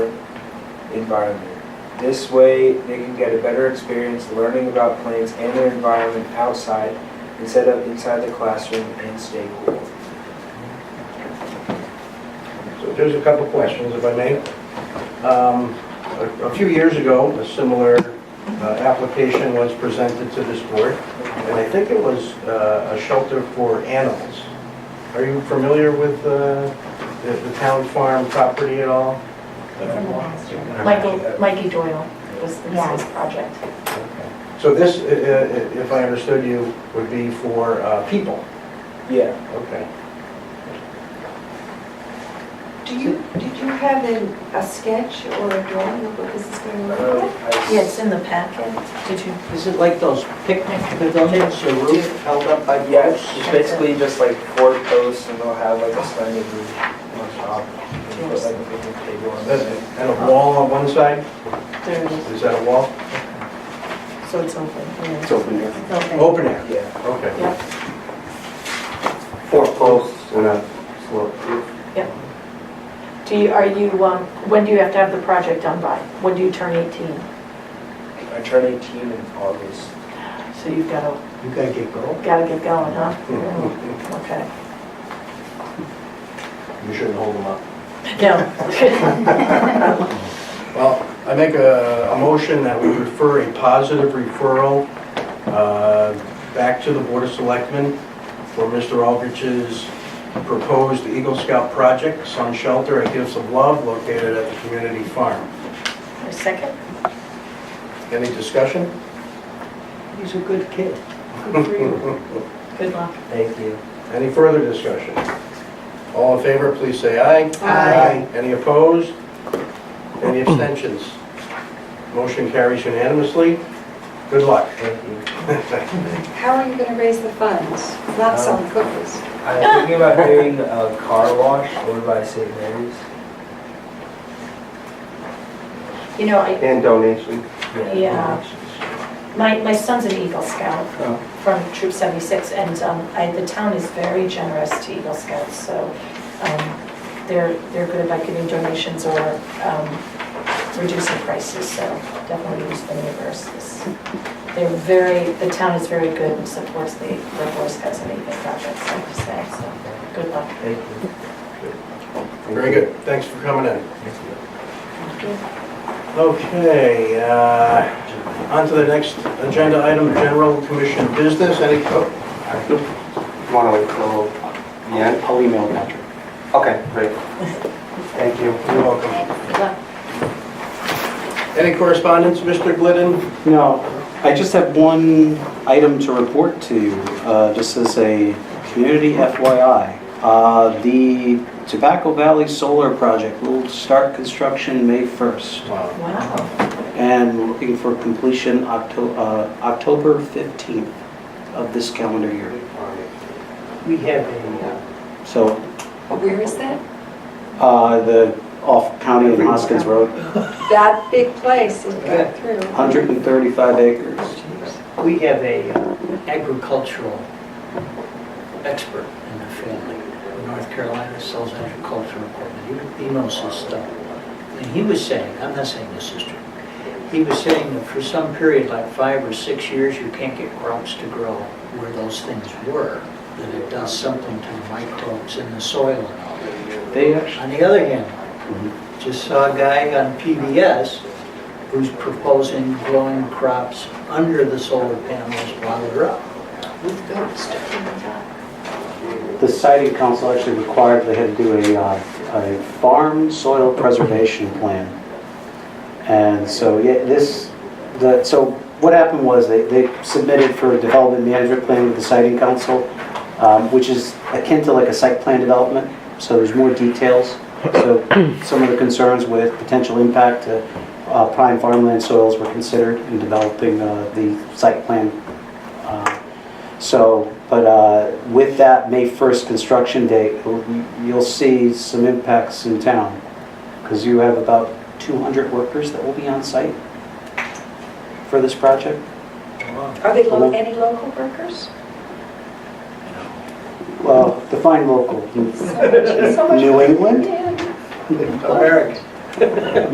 environment. This way, they can get a better experience learning about plants and their environment outside instead of inside the classroom and stay cool. So there's a couple questions, if I may. Um, a- A few years ago, a similar uh, application was presented to this board, and I think it was uh, a shelter for animals. Are you familiar with uh, the the town farm property at all? It's in the last year. Michael, Mikey Doyle was, Yeah. was his project. So this, i- i- if I understood you, would be for uh, people? Yeah, Okay. Do you, did you have an- a sketch or a drawing of what this is going to uh, look like? I- Yeah, it's in the packet. Did you? Is it like those picnic pavilions, the roof held up by Yes, ropes? it's basically just like four posts and they'll have like a standing roof on top. and put like a picnic table on That's- it. And a wall on one side? There it is. Is that a wall? So it's open. yeah. It's open air. It's open. Open air? Yeah, Okay. Four posts and a slope. Do you, are you, um, when do you have to have the project done by? When do you turn 18? I turn 18 in August. So you've got to, You gotta get going. Mm-hmm. got to get going, huh? Okay. You shouldn't hold them up. No. Well, I make a, a motion that we refer a positive referral uh, back to the Board of Selectmen for Mr. Aldrich's proposed Eagle Scout project, Sun Shelter, A Gifts of Love, located at the community farm. A second? Any discussion? He's a good kid. Good luck. Thank you. Any further discussion? All in favor, please say aye. Aye. Any opposed? Any abstentions? Motion carries unanimously. Good luck. Thank you. How are you going to raise the funds? Not selling cookies. I'm thinking about doing a car wash over by St. Mary's. You know, I, And donation. Yeah. uh, My, my son's an Eagle Scout Oh. from Troop 76, and um, I, the town is very generous to Eagle Scouts, so um, they're, they're good about giving donations or um, reducing prices, so definitely use the neighbors. This- They're very, the town is very good and supports the, the Boy Scouts and Eagle Projects, like you say, so good luck. Thank you. Very good. Thanks for coming in. Thank you. Okay, uh, on to the next agenda item, general commission business. Any, oh, Want to wait till the end? I'll email Patrick. Okay, great. Thank you. you're welcome. Good luck. Any correspondence, Mr. Glidden? No, I just have one item to report to you, uh, just as a community FYI. Uh, The Tobacco Valley Solar Project will start construction May 1st Uh, Wow. Wow, and we're looking for completion Octo- uh, October 15th of this calendar year. We have a, So Oh, Where is that? uh, the off County and Hoskins Road, That big place you go through. 135 acres. we have a agricultural expert in the family. North Carolina sells agricultural equipment. He he knows his stuff. And he was saying, I'm not saying this is true, he was saying that for some period, like five or six years, you can't get crops to grow where those things were, that it does something to microbes in the soil and all that. They actually, On the other hand, just saw a guy on PBS who's proposing growing crops under the solar panels while they're up. With goats stuck in the top. the siting council actually required they had to do a, uh, a farm soil preservation plan. And so, yeah, this, the, so what happened was they, they submitted for a development management plan with the siting council, um, which is akin to like a site plan development, so there's more details. So some of the concerns with potential impact to uh, prime farmland soils were considered in developing uh, the site plan. Uh, so, but uh, with that May 1st construction date, you'll see some impacts in town, because you have about 200 workers that will be on site for this project. Are they lo- any local workers? Well, define local, So much- so much- New England? Yeah. American.